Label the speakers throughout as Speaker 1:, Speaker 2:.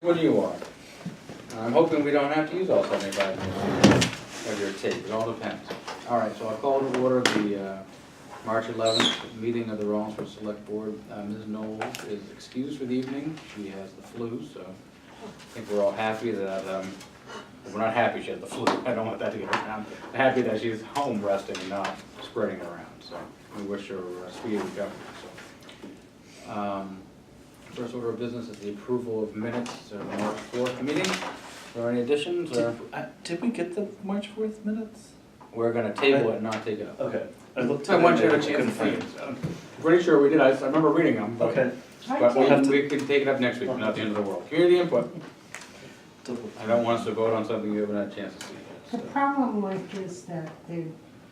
Speaker 1: What do you want? I'm hoping we don't have to use all seventy-five minutes of your tape, it all depends. All right, so I call to order the uh, March eleventh meeting of the Rollinsford Select Board. Uh, Ms. Knowles is excused for the evening, she has the flu, so I think we're all happy that, um, we're not happy she has the flu, I don't want that to get around. Happy that she's home resting and not spreading it around, so we wish her uh, speedy recovery, so. Um, First order of business is the approval of minutes of the March fourth meeting. Are there any additions, or
Speaker 2: Did, I- did we get the March fourth minutes?
Speaker 1: we're gonna table it and not take it up?
Speaker 2: Okay, I looked.
Speaker 1: I
Speaker 2: at
Speaker 1: want
Speaker 2: it
Speaker 1: you to
Speaker 2: and
Speaker 1: have a chance to
Speaker 2: couldn't
Speaker 1: see
Speaker 2: find
Speaker 1: Pretty sure we did, I, I remember reading them,
Speaker 2: it.
Speaker 1: but,
Speaker 2: Okay,
Speaker 1: but
Speaker 2: We'll have to-
Speaker 1: we, we can take it up next week, not the end of the world. Community input,
Speaker 2: double.
Speaker 1: I don't want us to vote on something you haven't had a chance to see
Speaker 3: The
Speaker 1: yet, so.
Speaker 3: problem like is that they,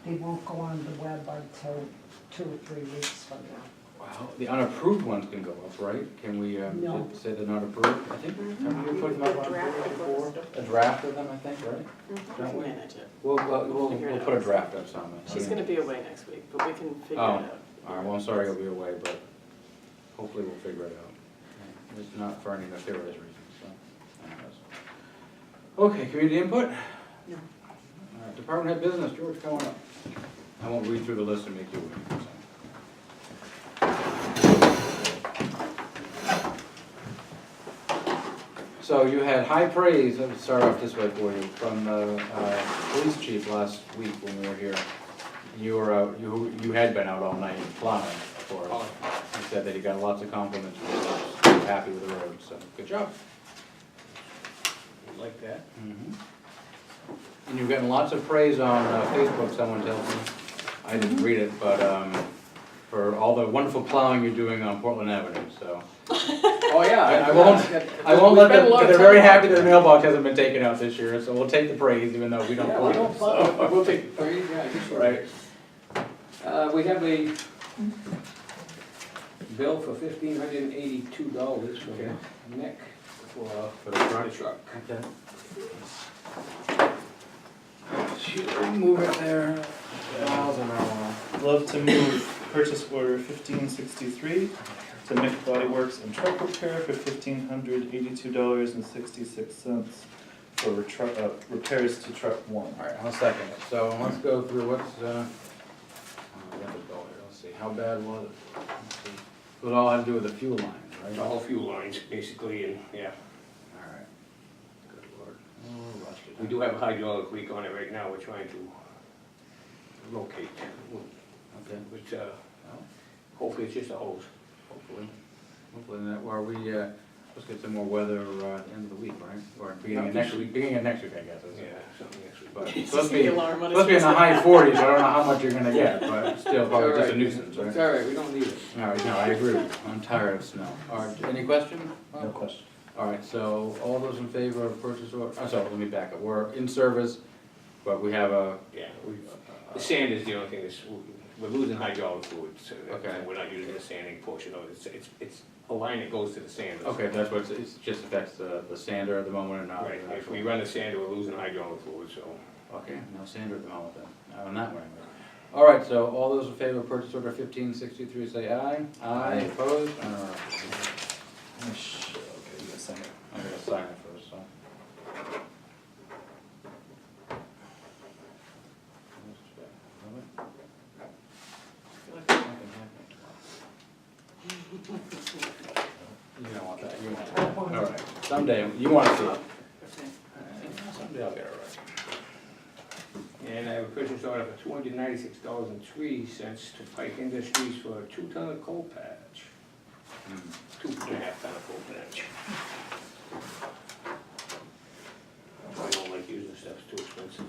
Speaker 3: they won't go on the web until two or three weeks from now.
Speaker 1: Wow, the unapproved ones can go up, right? Can we,
Speaker 3: No.
Speaker 1: um, say they're not approved? I think, have you put them up on
Speaker 4: Draft
Speaker 1: approved
Speaker 4: of
Speaker 1: before?
Speaker 4: them.
Speaker 1: A draft of them, I think, right?
Speaker 4: We
Speaker 1: Don't
Speaker 4: can
Speaker 1: we?
Speaker 4: manage it.
Speaker 1: We'll, we'll, we'll,
Speaker 4: Figure it
Speaker 1: we'll put a
Speaker 4: out.
Speaker 1: draft up sometime.
Speaker 4: She's gonna be away next week, but we can figure it
Speaker 1: Oh.
Speaker 4: out.
Speaker 1: All right, well, I'm sorry I'll be away, but hopefully we'll figure it out. It's not for any nefarious reasons, so. anyways. Okay, community input?
Speaker 4: No.
Speaker 1: All right, Department head business, George, come on up. I won't read through the list and make you wait. so. So you had high praise, let me start off this way for you, from the uh, police chief last week when we were here. You were out, you, you had been out all night plowing, of course. He said that he got lots of compliments, from the roads, he was happy with the road, so, good job.
Speaker 5: Like that?
Speaker 1: Mhm. And you've gotten lots of praise on uh, Facebook, someone tells me. I
Speaker 5: Mm-hmm.
Speaker 1: didn't read it, but um, for all the wonderful plowing you're doing on Portland Avenue, so.
Speaker 5: Oh, yeah.
Speaker 1: I- I won't- I won't let them, they're very happy their mailbox hasn't been taken out this year, so we'll take the praise even though we don't
Speaker 5: Yeah, we
Speaker 1: plow.
Speaker 5: don't plow, we'll take, three, yeah, you sure.
Speaker 1: Right.
Speaker 5: Uh, we have a bill for fifteen hundred and eighty-two dollars from
Speaker 1: Okay.
Speaker 5: Nick for
Speaker 1: For the truck.
Speaker 5: the truck.
Speaker 1: Okay. Should we move it there? Miles an hour.
Speaker 2: Love to move purchase order fifteen sixty-three to Mick Body Works and Truck Repair for fifteen hundred eighty-two dollars and sixty-six cents for retru- uh, repairs to truck one.
Speaker 1: All right, I'll second it. So let's go through what's, uh, uh, we have a bill here. let's see, how bad was it? Let's see. It all had to do with the fuel line, right?
Speaker 6: The
Speaker 1: All
Speaker 6: whole fuel lines, basically, and, yeah,
Speaker 1: right. Good lord. Oh, rusted.
Speaker 6: we do have a hydraulic leak on it right now, we're trying to locate,
Speaker 1: Okay,
Speaker 6: which, uh,
Speaker 1: well,
Speaker 6: hopefully it's just a hose.
Speaker 1: hopefully, hopefully that, while we, uh, let's get some more weather, uh, at the end of the week, right? Or beginning of next week, beginning of next week, I guess, is
Speaker 6: Yeah,
Speaker 1: it?
Speaker 6: something next week.
Speaker 1: But it's
Speaker 4: It's
Speaker 1: supposed
Speaker 4: just
Speaker 1: to be,
Speaker 4: the
Speaker 1: supposed
Speaker 4: alarm on
Speaker 1: to be in
Speaker 4: his.
Speaker 1: the high forties, I don't know how much you're gonna get, but still
Speaker 5: All
Speaker 1: probably just a
Speaker 5: right.
Speaker 1: nuisance,
Speaker 5: It's
Speaker 1: right?
Speaker 5: all right, we don't need it.
Speaker 1: All right, no, I agree, with you. I'm tired of snow. All right, any question?
Speaker 2: No question.
Speaker 1: All right, so all those in favor of purchase order, I'm sorry, let me back up. We're in service, but we have a,
Speaker 6: Yeah, we, the sand is the only thing that's, we're losing hydraulic fluid, so that-
Speaker 1: Okay.
Speaker 6: we're not using the sanding portion of it, it's, it's, it's a line that goes to the sander.
Speaker 1: okay, that's what, it's- it's just affects the, the sander at the moment and not. the
Speaker 6: Right, if
Speaker 1: actual-
Speaker 6: we run the sander, we're losing hydraulic fluid, so.
Speaker 1: Okay, no sander at the moment then, on that one. anyway. All right, so all those in favor of purchase order fifteen sixty-three, say aye. Aye, opposed? All right,
Speaker 2: Oh, sh- Okay, you gotta sign it.
Speaker 1: I'm gonna sign it first, so. You don't want that, you want that. All right, someday, you want to see it.
Speaker 6: Someday I'll get it right. And I have a purchase order for two hundred ninety-six dollars and three cents to Pike Industries for a two-ton of coal patch,
Speaker 1: Hmm,
Speaker 6: two and a half ton of coal patch. I don't like using stuff, it's too expensive.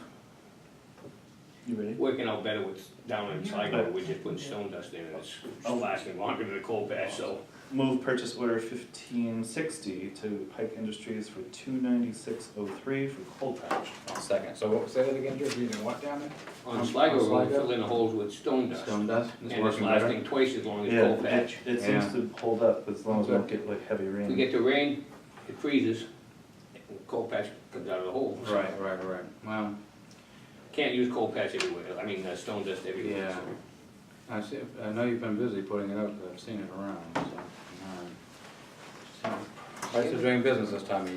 Speaker 2: You ready?
Speaker 6: Working out better with down in Sligo, we're just putting stone dust in and it's it's lasting longer than the coal patch, so.
Speaker 2: Move purchase order fifteen sixty to Pike Industries for two ninety-six oh three for coal patch.
Speaker 1: I'll second, so what- say that again, Drew, you didn't what down there?
Speaker 6: On Sligo,
Speaker 1: On
Speaker 6: we're
Speaker 1: Sligo?
Speaker 6: filling the holes with stone dust.
Speaker 1: Stone dust,
Speaker 6: And
Speaker 1: it's
Speaker 6: it's
Speaker 1: working better.
Speaker 6: lasting twice as long as
Speaker 2: Yeah,
Speaker 6: coal
Speaker 2: it-
Speaker 6: patch.
Speaker 2: It
Speaker 1: Yeah.
Speaker 2: seems to hold up as long as we don't
Speaker 1: Good.
Speaker 2: get like heavy rain.
Speaker 6: We get the rain, it freezes, and the coal patch comes out of the hole.
Speaker 1: Right, right, right, wow,
Speaker 6: Can't use coal patch everywhere, I mean, uh, stone dust everywhere.
Speaker 1: Yeah.
Speaker 6: so.
Speaker 1: I see, I know you've been busy putting it up, but I've seen it around, so. all right. Price of doing business this time of year.